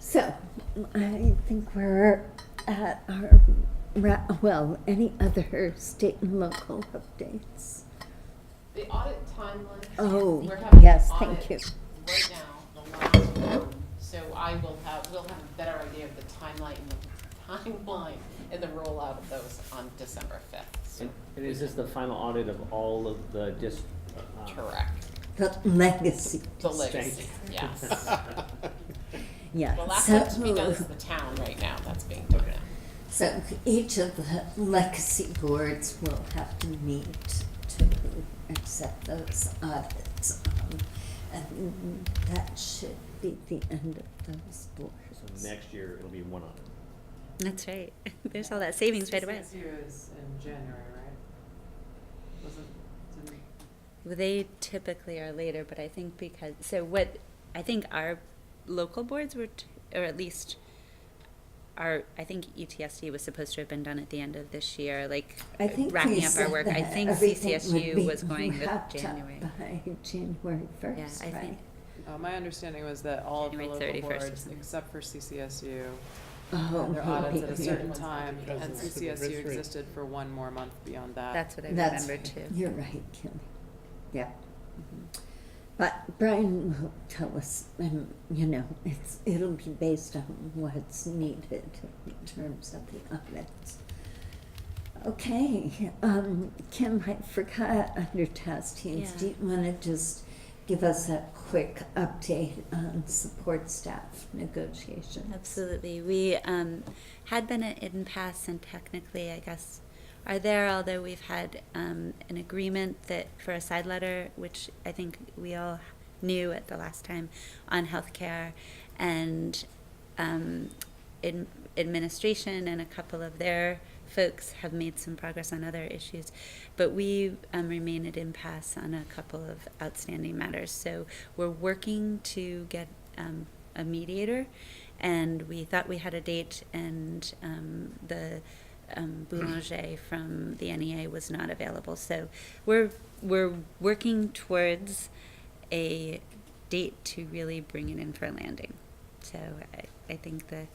So, I think we're at our, ra- well, any other state and local updates? The audit timeline. Oh, We're having an yes, thank audit you. Right now, the last one, so I will have, we'll have a better idea of the timeline, and the timeline and the rollout of those on December fifth, so, And and is this the final audit of all of the dis- uh, correct, The legacy, the Thank legacy, you. yes. yeah. The last so- one to be done is the town right now, that's being done now. So each of the legacy boards will have to meet to accept those audits. um, And that should be the end of those boards. So next year, it'll be one audit. That's right. There's all that savings right away. Six years in January, right? Wasn't, didn't, Well, They typically are later, but I think because, so what, I think our local boards were, t- or at least our, I think E ETSD was supposed to have been done at the end of this year, like I think we wrapping up said our work. I that think everything would CCSU be was going with wrapped up January. By January Yeah, first, I right? think, uh, my understanding was that all of the January local 31st or boards, something. except for CCSU, Oh, had their audits at a maybe. certain time, Because and it's the CCSU risk rate. existed for one more month beyond that. that's what I That's- remember too. You're right, Kelly. Yeah. But Brian will tell us, and you know, it's it'll be based on what's needed in terms of the audits. Okay, um, Kim, I forgot under task teams. Yeah. Do you want to just give us a quick update on support staff negotiations? Absolutely. We um, had been at impasse and technically, I guess, are there, although we've had um, an agreement that for a side letter, which I think we all knew at the last time on healthcare and um, in administration and a couple of their folks have made some progress on other issues, but we um, remain at impasse on a couple of outstanding matters. So we're working to get um, a mediator, and we thought we had a date, and um, the um, boulanger from the NEA was not available. So we're we're working towards a date to really bring it in for a landing. So I, I think the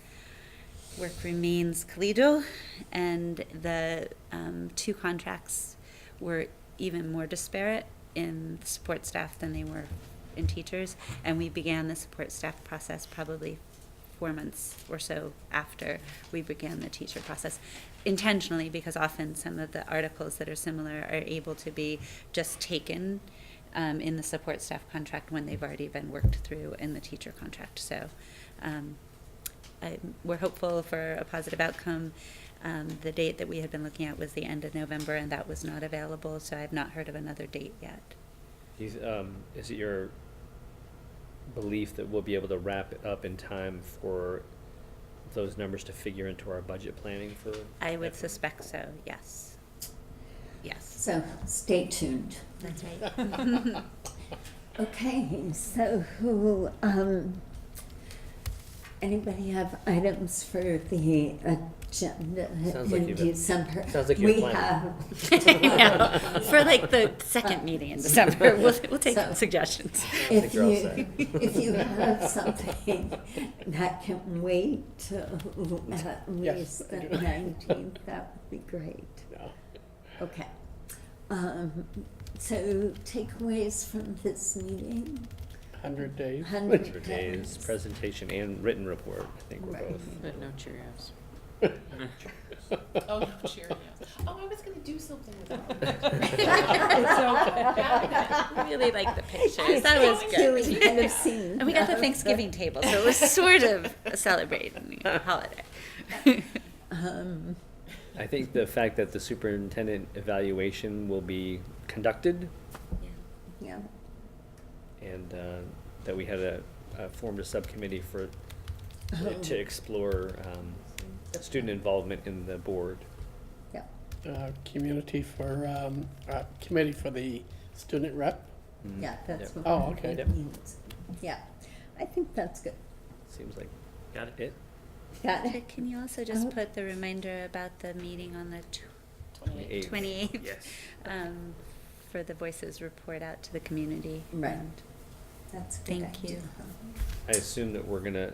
work remains collegial, and the um, two contracts were even more disparate in support staff than they were in teachers. And we began the support staff process probably four months or so after we began the teacher process intentionally because often some of the articles that are similar are able to be just taken um, in the support staff contract when they've already been worked through in the teacher contract. So um, I, we're hopeful for a positive outcome. Um, the date that we had been looking at was the end of November, and that was not available, so I've not heard of another date yet. Is, um, is it your belief that we'll be able to wrap it up in time for those numbers to figure into our budget planning for? I would FY? suspect so, yes. Yes. So stay tuned. That's right. Okay, so who, um, anybody have items for the agenda Sounds like in you've- December? sounds like you're We planning. have. Yeah, For like the second meeting in December, we'll, we'll take So- suggestions. If you're all you, set. if you have something that can wait till at least the nineteenth, that would be great. No. Okay. Um, so takeaways from this meeting? 100 days. Hundred Days, presentation and written report, I think we're Right. both. But no Cheerios. Oh, no, Cheerios. Oh, I was gonna do something with that. I really like the pictures, that was Julie, you good. have seen And we got the those. Thanksgiving table, so it was sort of a celebrating holiday. Um, I think the fact that the superintendent evaluation will be conducted yeah, and uh, that we had a, uh, formed a subcommittee for, to explore um, student involvement in the board. yeah. Uh, Community for, um, uh, committee for the student rep. Mm. Yeah, that's Yep. what. Oh, that okay. Yep. means. Yeah, I think that's good. Seems like, got it? Got Uh, it? Can you also Oh. just put the reminder about the meeting on the Twenty-eight. Eighth. twenty-eighth? Yes. Um, for the Voices report out to the community. Um, Right. That's a good Thank you. idea. I assume that we're gonna